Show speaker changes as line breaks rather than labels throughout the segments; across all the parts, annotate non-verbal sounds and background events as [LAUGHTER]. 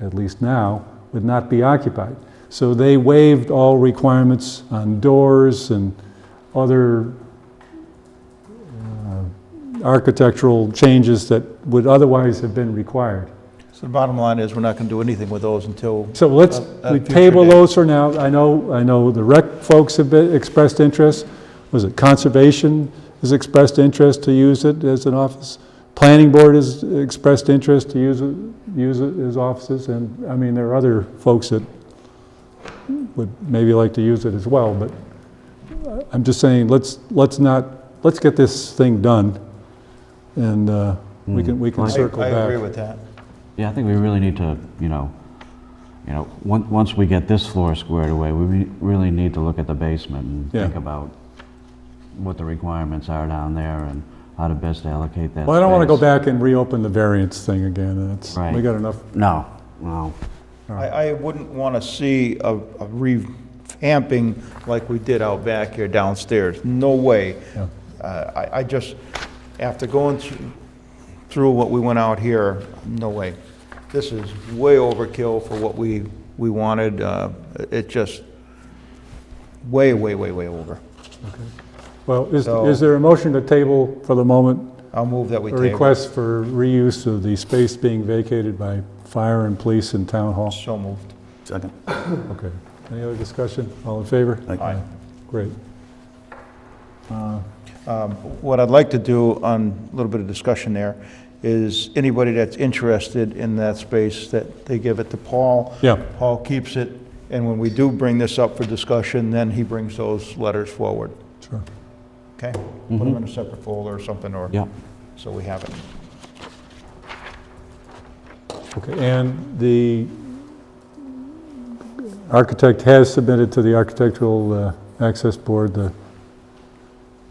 at least now, would not be occupied. So they waived all requirements on doors and other uh, architectural changes that would otherwise have been required.
So the bottom line is, we're not going to do anything with those until,
So let's,
At- at
we
future
table
date.
those for now. I know, I know the rec folks have been- expressed interest. Was it conservation has expressed interest to use it as an office? Planning board has expressed interest to use it, use it as offices, and, I mean, there are other folks that would maybe like to use it as well, but I'm just saying, let's, let's not, let's get this thing done, and uh, we can, we can
Hmm. I
circle
I
back.
agree with that.
Yeah, I think we really need to, you know, you know, on- once we get this floor squared away, we re- really need to look at the basement and
Yeah.
think about what the requirements are down there and how to best allocate that
Well, I don't want to go
space.
back and reopen the variance thing again, that's, we
Right.
got enough
No, no.
I, I wouldn't want to see a a revamping like we did out back here downstairs, no way.
Yeah.
Uh, I, I just, after going through, through what we went out here, no way. This is way overkill for what we, we wanted, uh, it just, way, way, way, way over.
Well, is,
So-
is there a motion to table for the moment,
I'll move that we
a
table.
request for reuse of the space being vacated by fire and police and town hall?
So moved.
Second.
Okay. Any other discussion? All in favor?
Aye.
Aye.
Great.
Um, What I'd like to do on a little bit of discussion there is anybody that's interested in that space, that they give it to Paul.
Yeah.
Paul keeps it, and when we do bring this up for discussion, then he brings those letters forward,
Sure.
okay? Put
Mm-hmm.
them in a separate folder or something, or,
Yep.
so we have it.
Okay, and the architect has submitted to the Architectural uh, Access Board the,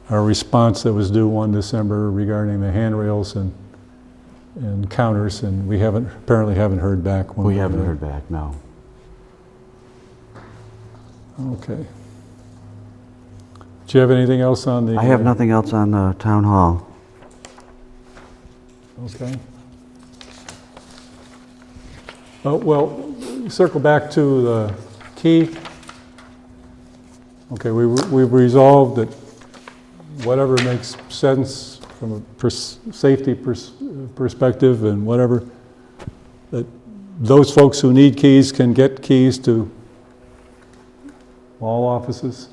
our response that was due 1 December regarding the handrails and, and counters, and we haven't, apparently haven't heard back. one
We
way or
haven't
another.
heard back, no.
Okay. Do you have anything else on the?
I have nothing else on the town hall.
Okay. Oh, Well, circle back to the key. Okay, we- we've resolved that whatever makes sense from a pers- safety pers- perspective and whatever, that those folks who need keys can get keys to all offices.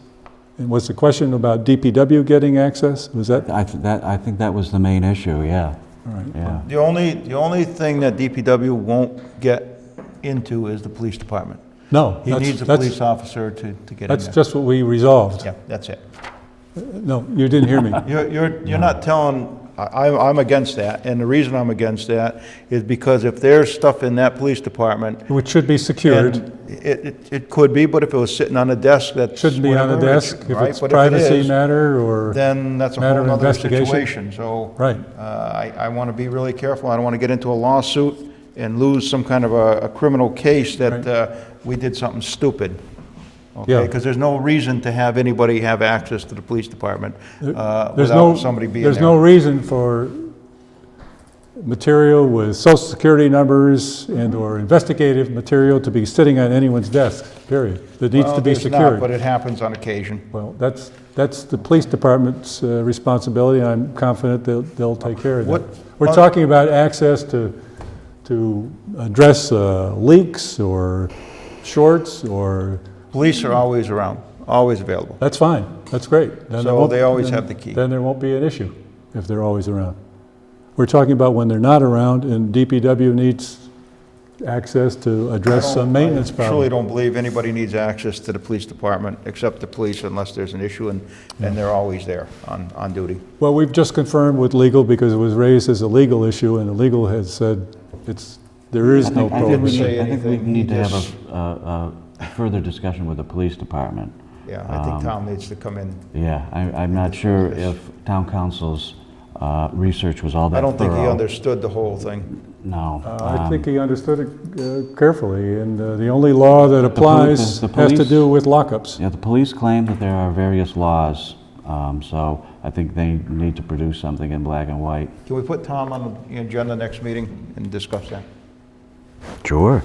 And was the question about DPW getting access? Was that, all
I, th- that, I think that was the main issue, yeah,
right.
yeah.
The only, the only thing that DPW won't get into is the police department.
No.
He
that's-
needs a
that's-
police officer to, to get in there.
That's just what we resolved.
Yeah, that's it.
No, you didn't hear
[LAUGHS]
me.
You're, you're, you're not telling, I, I'm- I'm against that, and the reason I'm against that is because if there's stuff in that police department.
Which should be
and
secured.
It, it, it could be, but if it was sitting on a desk, that's.
Shouldn't be on the
whatever, it
desk
should-
if
right,
it's
but
privacy
is,
matter or,
Then that's a
matter
whole
of
other
investigation.
situation, so.
right.
Uh, I, I want to be really careful, I don't want to get into a lawsuit and lose some kind of a, a criminal case that,
Right.
uh, we did something stupid.
Yeah.
Okay, because there's no reason to have anybody have access to the police department, uh,
There's no-
without somebody being there.
There's no reason for material with social security numbers and/or investigative material to be sitting on anyone's desk, period. That needs
Well,
to be
there's not, But
secured.
it happens on occasion.
Well, that's, that's the police department's uh, responsibility, and I'm confident they'll, they'll take care of that.
What-
We're
on-
talking about access to, to address uh, leaks or shorts or
Police are always around, always available.
That's fine, that's great. Then there
So
won't-
they always
then-
have the key.
Then there won't be an issue if they're always around. We're talking about when they're not around and DPW needs access to address some maintenance
I Truly
problem.
don't believe anybody needs access to the police department, except the police, unless there's an issue, and, and they're always there on, on duty.
Well, we've just confirmed with legal because it was raised as a legal issue and the legal has said it's, there is
I
no
think- I think we
prohibition.
say
need- I think we
anything,
need to
just-
have a, a a further discussion with the police department.
Yeah, I think Tom needs to come in.
Yeah, I, I'm not sure if town council's uh, research was all that
I don't think he
thorough.
understood the whole thing.
No.
Uh, I
um,
think he understood it uh, carefully and uh, the only law that
poli-
applies
the
has to
police-
do with lockups.
Yeah, the police claim that there are various laws, um, so I think they need to produce something in black and white.
Can we put Tom on the agenda next meeting and discuss that?
Sure.